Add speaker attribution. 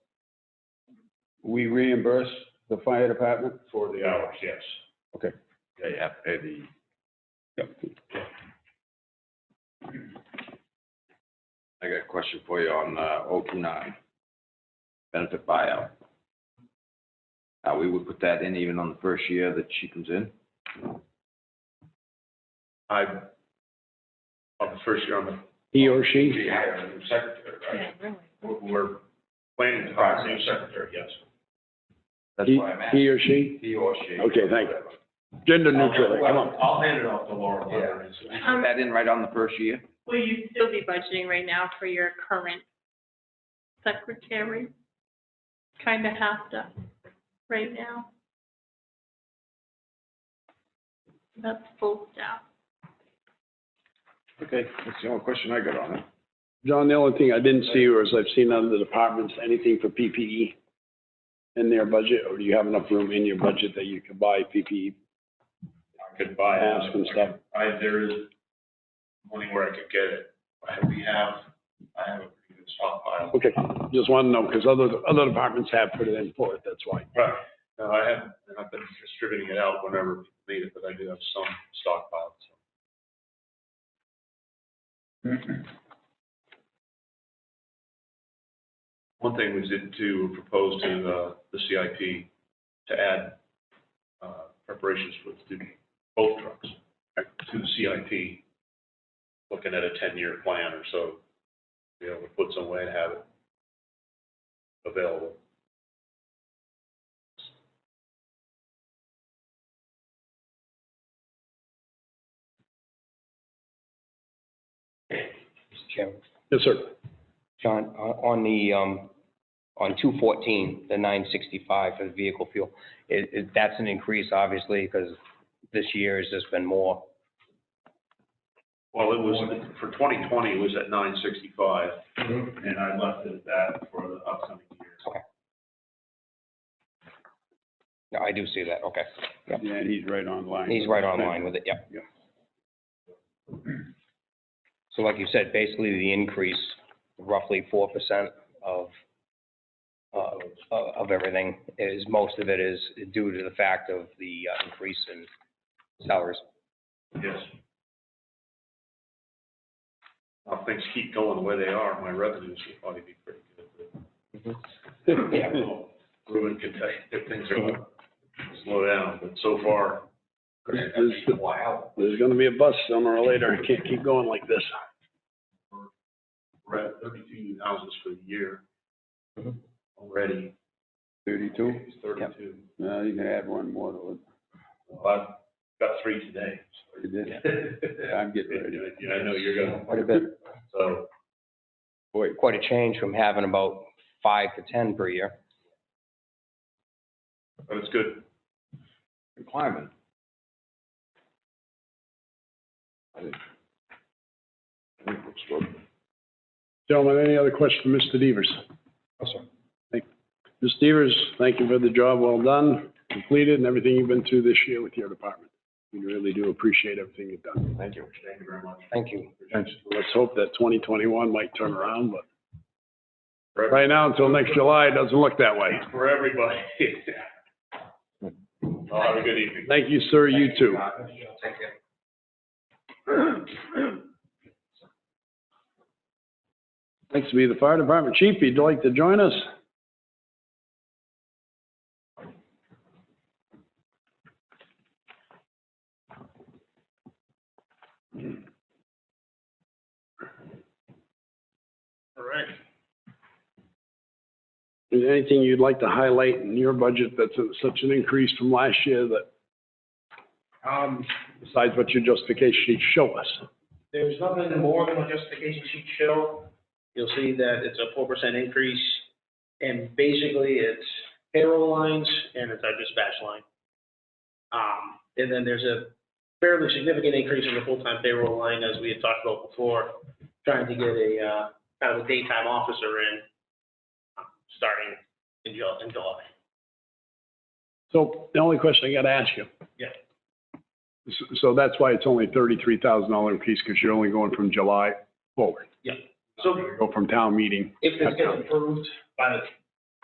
Speaker 1: we reimburse the fire department?
Speaker 2: for the hours, yes.
Speaker 1: Okay.
Speaker 2: They have to pay the.
Speaker 1: Yep.
Speaker 3: I got a question for you on, uh, oh two nine, benefit buyout. Uh, we would put that in even on the first year that she comes in?
Speaker 2: I, on the first year, on the
Speaker 1: He or she?
Speaker 2: We hire a new secretary,
Speaker 4: Yeah,
Speaker 2: right?
Speaker 4: really.
Speaker 2: We're, we're planning to hire a new secretary, yes.
Speaker 3: That's
Speaker 1: He-
Speaker 3: why I'm asking.
Speaker 1: He or she?
Speaker 3: He or she.
Speaker 1: Okay, thank you. Gender neutral, come on.
Speaker 2: I'll hand it off to Laura. whether it's-
Speaker 3: We put that in right on the first year?
Speaker 4: Will you still be budgeting right now for your current secretary? Kind of have to, right now. That's full staff.
Speaker 3: Okay, that's the only question I got on it.
Speaker 1: John, the only thing I didn't see or is I've seen other departments, anything for PPE in their budget, or do you have enough room in your budget that you could buy PPE?
Speaker 2: I Could buy. it.
Speaker 1: Ask and stuff.
Speaker 2: I, there is money where I could get it. I- We have, I have a pretty good stockpile.
Speaker 1: Okay, just want to know, because other, other departments have put it in for it, that's why.
Speaker 2: Right. No, I have, and I've been distributing it out whenever people need it, but I do have some stockpiled, so. One thing we did to propose to the, the CIP to add, uh, preparations for the, both trucks to the CIP, looking at a ten-year plan or so, you know, we put some way to have it available.
Speaker 5: Mr. Chairman.
Speaker 1: Yes, sir.
Speaker 5: John, on on the, um, on 214, the 965 for the vehicle fuel, it, it, that's an increase, obviously, because this year has just been more.
Speaker 2: Well, it was, for twenty twenty, it was at nine sixty-five,
Speaker 1: Mm-hmm.
Speaker 2: and I left it at that for the upcoming year.
Speaker 5: No, I do see that, okay.
Speaker 1: Yeah, he's right on line.
Speaker 5: He's right on line with it, yep.
Speaker 1: Yeah.
Speaker 5: So like you said, basically the increase, roughly 4% of, uh, of of everything is, most of it is due to the fact of the uh, increase in salaries.
Speaker 2: Yes. If things keep going the way they are, my revenues will probably be pretty good.
Speaker 5: Yeah.
Speaker 2: Ruben can tell you if things are gonna slow down, but so far.
Speaker 1: This- this-
Speaker 2: Wow.
Speaker 1: There's going to be a bus sooner or later. It can't keep going like this.
Speaker 2: We're at thirty-two houses for the year
Speaker 5: Mhm.
Speaker 2: already.
Speaker 1: Mm-hmm. Thirty-two?
Speaker 2: It's Thirty-two.
Speaker 1: No, Uh, you can add one more to
Speaker 2: Well, I've got three today. so-
Speaker 1: it. You did. I'm getting ready.
Speaker 2: Yeah, I know you're gonna,
Speaker 5: Quite a bit.
Speaker 2: so,
Speaker 5: quite a change from having about five to 10 per year.
Speaker 2: but it's good.
Speaker 3: You're Climbing.
Speaker 1: Gentlemen, any other questions for Mr. Devers?
Speaker 5: Yes, sir.
Speaker 1: Thank- Mr. Devers, thank you for the job well done, completed, and everything you've been through this year with your department. We really do appreciate everything you've done.
Speaker 2: Thank you. Thank you very much.
Speaker 5: Thank you.
Speaker 1: Let's hope that 2021 might turn around, but right now, until next July, it doesn't look that way.
Speaker 2: For everybody. Well, have a good evening.
Speaker 1: Thank you, sir, you too.
Speaker 2: Thank you.
Speaker 1: Next to be the fire department chief. He'd like to join us.
Speaker 2: All right.
Speaker 1: Is there anything you'd like to highlight in your budget that's such an increase from last year that,
Speaker 6: Um,
Speaker 1: besides what your justification sheet show us?
Speaker 6: there's nothing more than what justification sheet show. You'll see that it's a four percent increase, and basically it's payroll lines and it's our dispatch line. Um, and then there's a fairly significant increase in the full-time payroll line, as we had talked about before, trying to get a, uh, kind of a daytime officer in, um, starting in July, in July.
Speaker 1: So the only question I got to ask you.
Speaker 6: Yeah.
Speaker 1: S- So that's why it's only thirty-three thousand dollar increase, because you're only going from July forward.
Speaker 6: So
Speaker 1: Go from town meeting.
Speaker 6: if this gets approved by the